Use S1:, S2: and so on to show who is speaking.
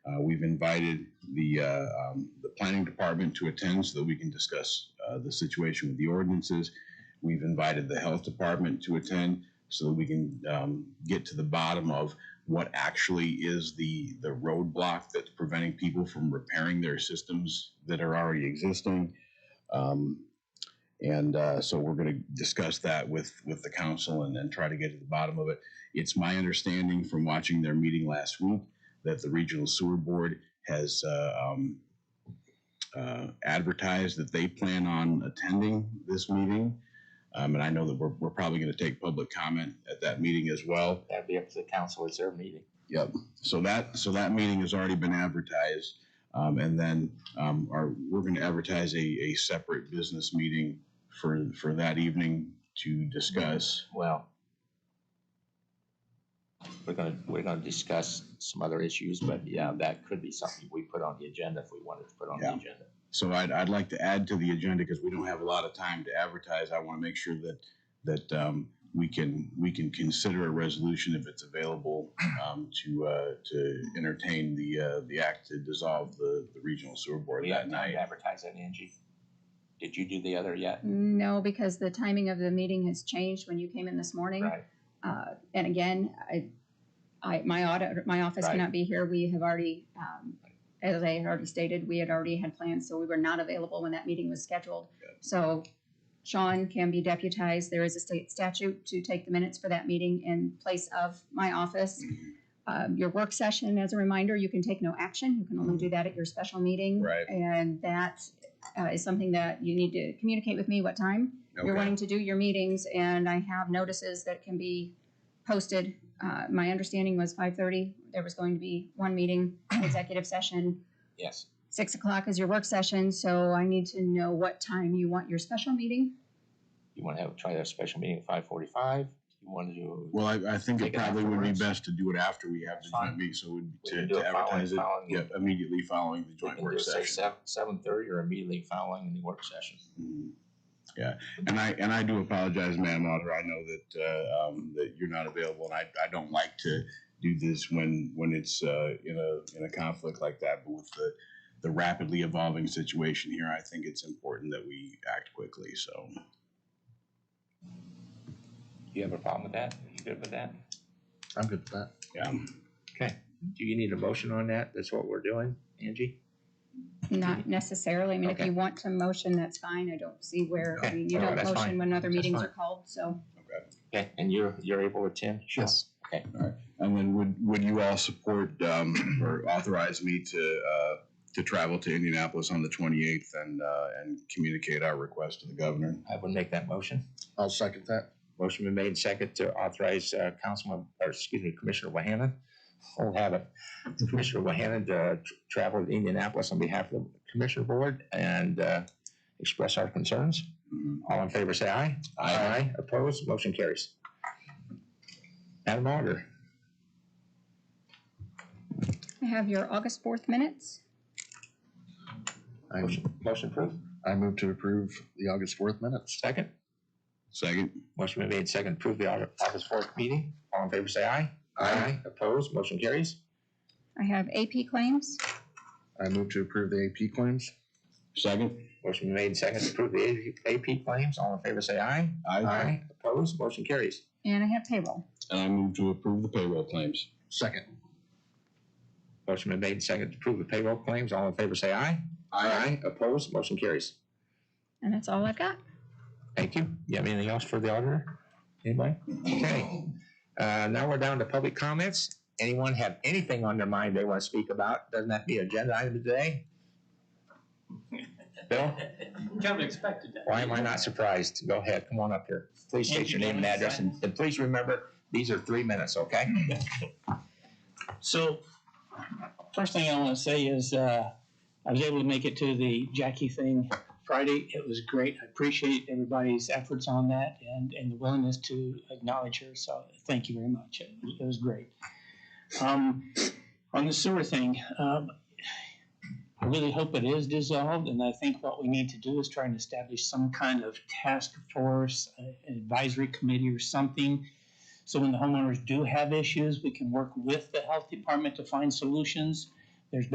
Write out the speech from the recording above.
S1: Uh, we've invited the, uh, um, the planning department to attend so that we can discuss, uh, the situation with the ordinances. We've invited the health department to attend so that we can, um, get to the bottom of what actually is the, the roadblock that's preventing people from repairing their systems that are already existing. Um, and, uh, so we're gonna discuss that with, with the council and then try to get to the bottom of it. It's my understanding from watching their meeting last week that the regional sewer board has uh, um, uh, advertised that they plan on attending this meeting. Um, And I know that we're, we're probably going to take public comment at that meeting as well.
S2: That'd be up to the council, it's their meeting.
S1: Yep. So that, so that meeting has already been advertised. Um, And then um, our, we're going to advertise a, a separate business meeting for, for that evening to discuss.
S2: Well, we're gonna, we're gonna discuss some other issues, but yeah, that could be something we put on the agenda if we wanted to put on the
S1: Yeah.
S2: agenda.
S1: So I'd, I'd like to add to the agenda because we don't have a lot of time to advertise. I want to make sure that, that um, we can, we can consider a resolution if it's available um, to, uh, to entertain the, uh, the act to dissolve the, the regional sewer board
S2: We
S1: that
S2: haven't
S1: night.
S2: advertised that, Angie. Did you do the other yet?
S3: No, because the timing of the meeting has changed when you came in this morning.
S2: Right,
S3: Uh, and again, I, I, my audit, my office
S2: Right.
S3: cannot be here. We have already, um, as I had already stated, we had already had plans, so we were not available when that meeting was scheduled. So Sean can be deputized. There is a state statute to take the minutes for that meeting in place of my office.
S1: Mhm.
S3: Um, your work session, as a reminder, you can take no action. You can only do that at your special meeting.
S1: Right.
S3: And that, uh, is something that you need to communicate with me what time you're
S1: Okay.
S3: wanting to do your meetings, and I have notices that can be posted. Uh, my understanding was five thirty, there was going to be one meeting, executive session,
S2: yes,
S3: six o'clock is your work session, so I need to know what time you want your special meeting.
S2: you wanna have, try that special meeting at five forty-five, you wanna do,
S1: Well, I, I think it
S2: Take it
S1: probably would be
S2: afterwards.
S1: best to do it after we have the
S2: Fine.
S1: joint meeting, so it would
S2: We
S1: to
S2: can do
S1: to
S2: it following-
S1: advertise it,
S2: following the-
S1: yeah, immediately following the
S2: we
S1: joint
S2: can do
S1: work
S2: it say
S1: session.
S2: seven, seven thirty or immediately following the work session.
S1: Mhm. Yeah, and I, and I do apologize, Madam Auditor, I know that, uh, um, that you're not available, and I, I don't like to do this when, when it's, uh, in a, in a conflict like that, but with the, the rapidly evolving situation here, I think it's important that we act quickly, so.
S2: You have a problem with that? You good with that?
S4: I'm good with that.
S1: Yeah,
S2: Okay, do you need a motion on that? That's what we're doing, Angie?
S3: Not necessarily, I mean, if
S2: Okay.
S3: you want to motion, that's fine, I don't see where, I
S2: Okay,
S3: mean, you
S2: all right,
S3: don't
S2: that's
S3: motion
S2: fine.
S3: when other
S4: That's
S3: meetings
S4: fine.
S3: are called, so.
S2: Okay, and you're, you're able to attend? Sure.
S4: Yes.
S1: and then would, would you all support, um, or authorize me to, uh, to travel to Indianapolis on the twenty-eighth and, uh, and communicate our request to the governor?
S2: I would make that motion.
S4: I'll second that.
S2: Motion been made and second to authorize uh, Councilman, or excuse me, Commissioner Wahanan. I'll have it. Commissioner Wahanan uh, tr- traveled to Indianapolis on behalf of the Commissioner Board and uh, express our concerns.
S1: Mhm.
S2: All in favor, say aye.
S1: Aye.
S2: Opposed, motion carries. Madam Auditor,
S3: I have your August fourth minutes,
S4: I,
S2: motion motion approved.
S4: I move to approve the August fourth minutes.
S2: Second,
S1: Second?
S2: motion been made and second, approve the Au- August fourth meeting. All in favor, say aye. Opposed, motion carries.
S3: I have AP claims,
S4: I move to approve the AP claims.
S1: Second?
S2: Motion been made and second, approve the AP claims. All in favor, say aye. Opposed, motion carries.
S3: and I have payroll.
S1: And I move to approve the payroll claims.
S4: Second.
S2: Motion been made and seconded to approve the payroll claims. All in favor, say aye. Opposed, motion carries.
S3: And that's all I've got.
S2: Thank you. You have anything else for the auditor? Anybody? Okay. Uh, now we're down to public comments. Anyone have anything on their mind they want to speak about? Doesn't that be agenda item today? Bill,
S5: Kind of expected that.
S2: why am I not surprised? Go ahead, come on up here. Please state your name and address, and, and please remember, these are three minutes, okay?
S5: So, first thing I want to say is, uh, I was able to make it to the Jackie thing Friday. It was great. I appreciate everybody's efforts on that and, and the willingness to acknowledge her. So, thank you very much. It, was- it was great. Um, on the sewer thing, um, I really hope it is dissolved, and I think what we need to do is try and establish some kind of task force, uh, an advisory committee or something. So when the homeowners do have issues, we can work with the health department to find solutions.